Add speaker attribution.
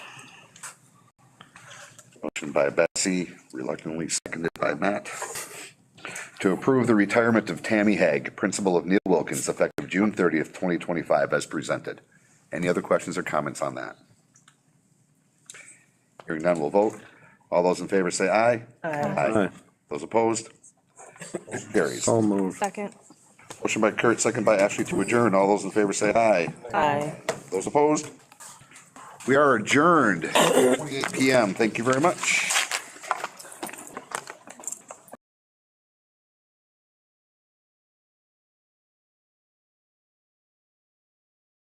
Speaker 1: Motion by Bessie, reluctantly seconded by Matt. To approve the retirement of Tammy Haag, principal of Neil Wilkins, effective June 30th, 2025, as presented. Any other questions or comments on that? Hearing none, we'll vote. All those in favor say aye. Aye. Those opposed? Motion Carries.
Speaker 2: So moved.
Speaker 3: Second.
Speaker 1: Motion by Kurt, second by Ashley to adjourn. All those in favor say aye.
Speaker 3: Aye.
Speaker 1: Those opposed? We are adjourned, 8 PM. Thank you very much.